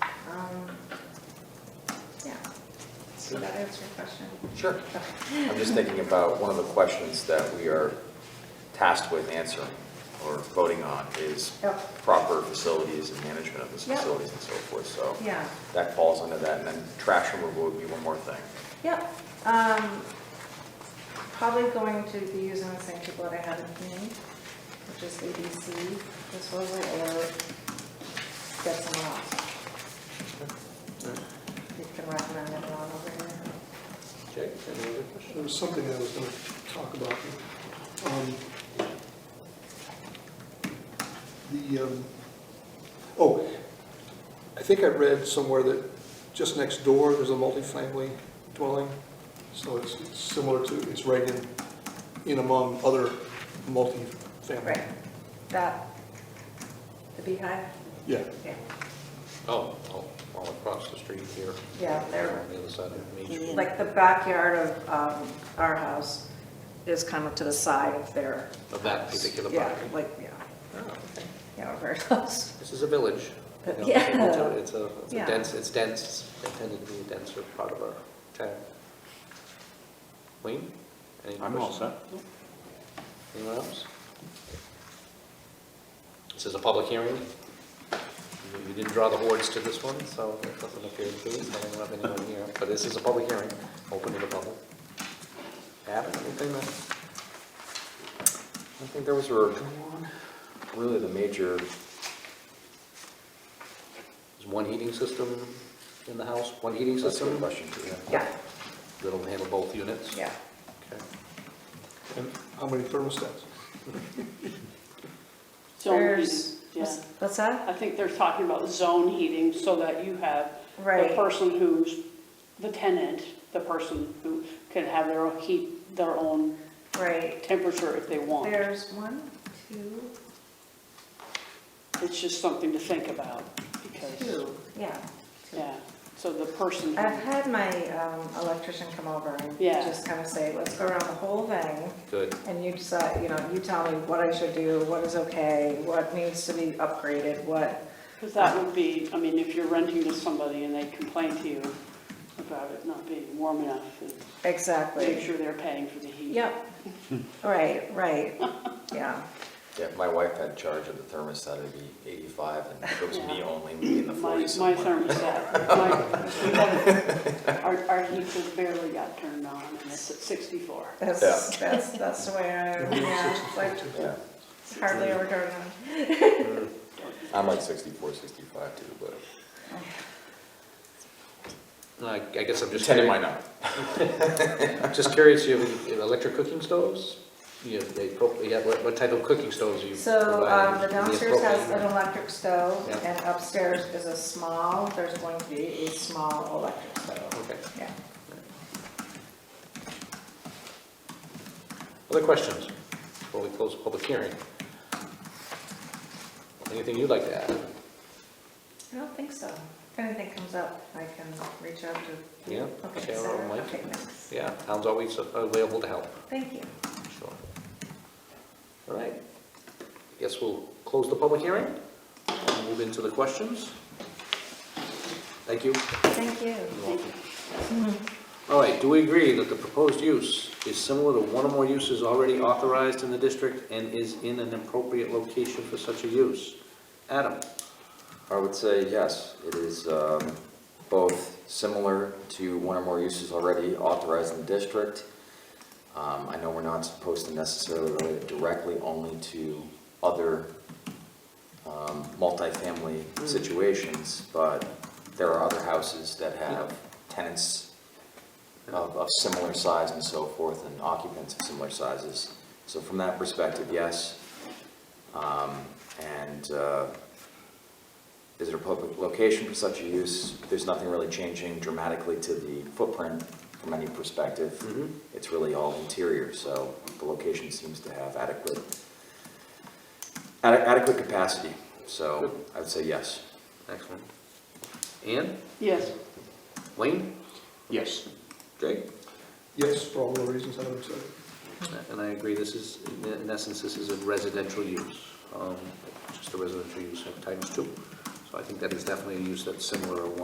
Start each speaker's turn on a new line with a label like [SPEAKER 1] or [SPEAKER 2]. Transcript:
[SPEAKER 1] Did Um, that answer your question?
[SPEAKER 2] Sure. I'm just thinking about one of the questions that we are tasked with answering or voting on is
[SPEAKER 1] Yep.
[SPEAKER 2] proper facilities and management of those
[SPEAKER 1] Yep.
[SPEAKER 2] facilities and so forth, so.
[SPEAKER 1] Yeah.
[SPEAKER 2] That falls under that, and then trash removal would be one more thing.
[SPEAKER 1] Yep. Um, Probably going to be using the same people that I had with me, which is ABC, this was it, or get someone else. You can recommend anyone over here.
[SPEAKER 3] Jake, any other questions?
[SPEAKER 4] There was something I was going to talk about. Um, The, um, oh, I think I read somewhere that just next door, there's a multifamily dwelling, so it's it's similar to, it's right in, in among other multifamily.
[SPEAKER 1] Right, that, the beehive?
[SPEAKER 4] Yeah,
[SPEAKER 1] Yeah.
[SPEAKER 3] Oh, oh, all across the street here.
[SPEAKER 1] Yeah, they're-
[SPEAKER 3] On the other side of Main Street.
[SPEAKER 1] Like the backyard of um, our house is kind of to the side of their.
[SPEAKER 3] Of that
[SPEAKER 1] house.
[SPEAKER 3] particular
[SPEAKER 1] Yeah,
[SPEAKER 3] property.
[SPEAKER 1] like, yeah,
[SPEAKER 3] Oh, okay.
[SPEAKER 1] yeah, very close.
[SPEAKER 3] This is a village. you know,
[SPEAKER 1] Uh, Yeah.
[SPEAKER 3] it's a- It's a, it's
[SPEAKER 1] Yeah.
[SPEAKER 3] a dense, it's dense, It's intended to be a denser part of our town. Wayne? any questions? Anyone else? This is a public hearing. You- You didn't draw the hordes to this one, so it doesn't appear to be, so I don't have anyone here. But this is a public hearing, open to the public. Adam, anything
[SPEAKER 2] I
[SPEAKER 3] that,
[SPEAKER 2] think those were really the major,
[SPEAKER 3] is one heating system in the house, one heating
[SPEAKER 2] that's a
[SPEAKER 3] system?
[SPEAKER 2] good question, Julia.
[SPEAKER 1] Yeah,
[SPEAKER 3] That'll handle both units?
[SPEAKER 1] yeah.
[SPEAKER 3] Okay.
[SPEAKER 4] and how many thermostats?
[SPEAKER 5] Zone heating,
[SPEAKER 1] There's-
[SPEAKER 5] yeah.
[SPEAKER 1] What's that?
[SPEAKER 5] I think they're talking about zone heating so that you have the
[SPEAKER 1] Right.
[SPEAKER 5] person who's the tenant, the person who can have their own heat, their own
[SPEAKER 1] Right.
[SPEAKER 5] temperature if they want.
[SPEAKER 1] There's one, two,
[SPEAKER 5] It's just something to think about because,
[SPEAKER 1] two, yeah.
[SPEAKER 5] yeah, so the person, who-
[SPEAKER 1] I've had my um, electrician come over and
[SPEAKER 5] Yeah.
[SPEAKER 1] just kind of say, let's go around the whole thing.
[SPEAKER 3] Good.
[SPEAKER 1] And you decide, you know, you tell me what I should do, what is okay, what needs to be upgraded, what,
[SPEAKER 5] because that would be, I mean, if you're renting to somebody and they complain to you about it not being warm enough, and make
[SPEAKER 1] exactly.
[SPEAKER 5] sure they're paying for the heat.
[SPEAKER 1] Yep, right, right, yeah.
[SPEAKER 2] Yeah, my wife had charge of the thermostat, it'd be 85, and if it was me
[SPEAKER 5] Yeah.
[SPEAKER 2] only, we'd be in the
[SPEAKER 5] My,
[SPEAKER 2] 40s
[SPEAKER 5] my
[SPEAKER 2] somewhere.
[SPEAKER 5] thermostat, my, we got- our, our heater barely got turned on, and it's at sixty-four.
[SPEAKER 1] That's, that's, that's the way I, yeah, it's like
[SPEAKER 2] Yeah,
[SPEAKER 1] hardly ever turn on.
[SPEAKER 2] I'm like 64, 65 too, but.
[SPEAKER 3] I I guess I'm just.
[SPEAKER 2] Ten
[SPEAKER 3] curious-
[SPEAKER 2] might not.
[SPEAKER 3] I'm Just curious, you have any electric cooking stoves? You have, they, pro- you have- what what type of cooking stoves you
[SPEAKER 1] So, um,
[SPEAKER 3] provide?
[SPEAKER 1] the
[SPEAKER 3] Do you have
[SPEAKER 1] downstairs has
[SPEAKER 3] propane or-
[SPEAKER 1] an electric stove,
[SPEAKER 3] Yeah.
[SPEAKER 1] and upstairs is a small, there's going to be a small electric stove,
[SPEAKER 3] Okay.
[SPEAKER 1] yeah.
[SPEAKER 3] Other questions before we close the public hearing? Anything you'd like to add?
[SPEAKER 1] I don't think so. If anything comes up, I can reach out to.
[SPEAKER 3] Yeah,
[SPEAKER 1] Okay,
[SPEAKER 3] Sarah or
[SPEAKER 1] Sarah,
[SPEAKER 3] Mike?
[SPEAKER 1] okay, thanks.
[SPEAKER 3] Yeah, town's always available to help,
[SPEAKER 1] Thank you.
[SPEAKER 3] sure. All right, guess we'll close the public hearing and move into the questions. Thank you.
[SPEAKER 1] Thank you.
[SPEAKER 3] All right, do we agree that the proposed use is similar to one or more uses already authorized in the district and is in an appropriate location for such a use? Adam?
[SPEAKER 2] I would say yes, it is um, both similar to one or more uses already authorized in the district. Um, I know we're not supposed to necessarily relate it directly only to other um, multifamily situations, but there are other houses that have tenants of, of similar size and so forth, and occupants of similar sizes. So from that perspective, yes. Um, And uh, is it a public location for such a use? There's nothing really changing dramatically to the footprint from any perspective.
[SPEAKER 3] Mm-hmm.
[SPEAKER 2] It's really all interior, so the location seems to have adequate, ade- adequate capacity. So I would say yes.
[SPEAKER 3] Excellent. Ann?
[SPEAKER 5] Yes,
[SPEAKER 3] Wayne?
[SPEAKER 6] Yes.
[SPEAKER 3] Jake?
[SPEAKER 4] Yes, for all the reasons I would say.
[SPEAKER 3] And I agree, this is, in essence, this is a residential use, um, just a residential use of times two. So I think that is definitely a use that's similar or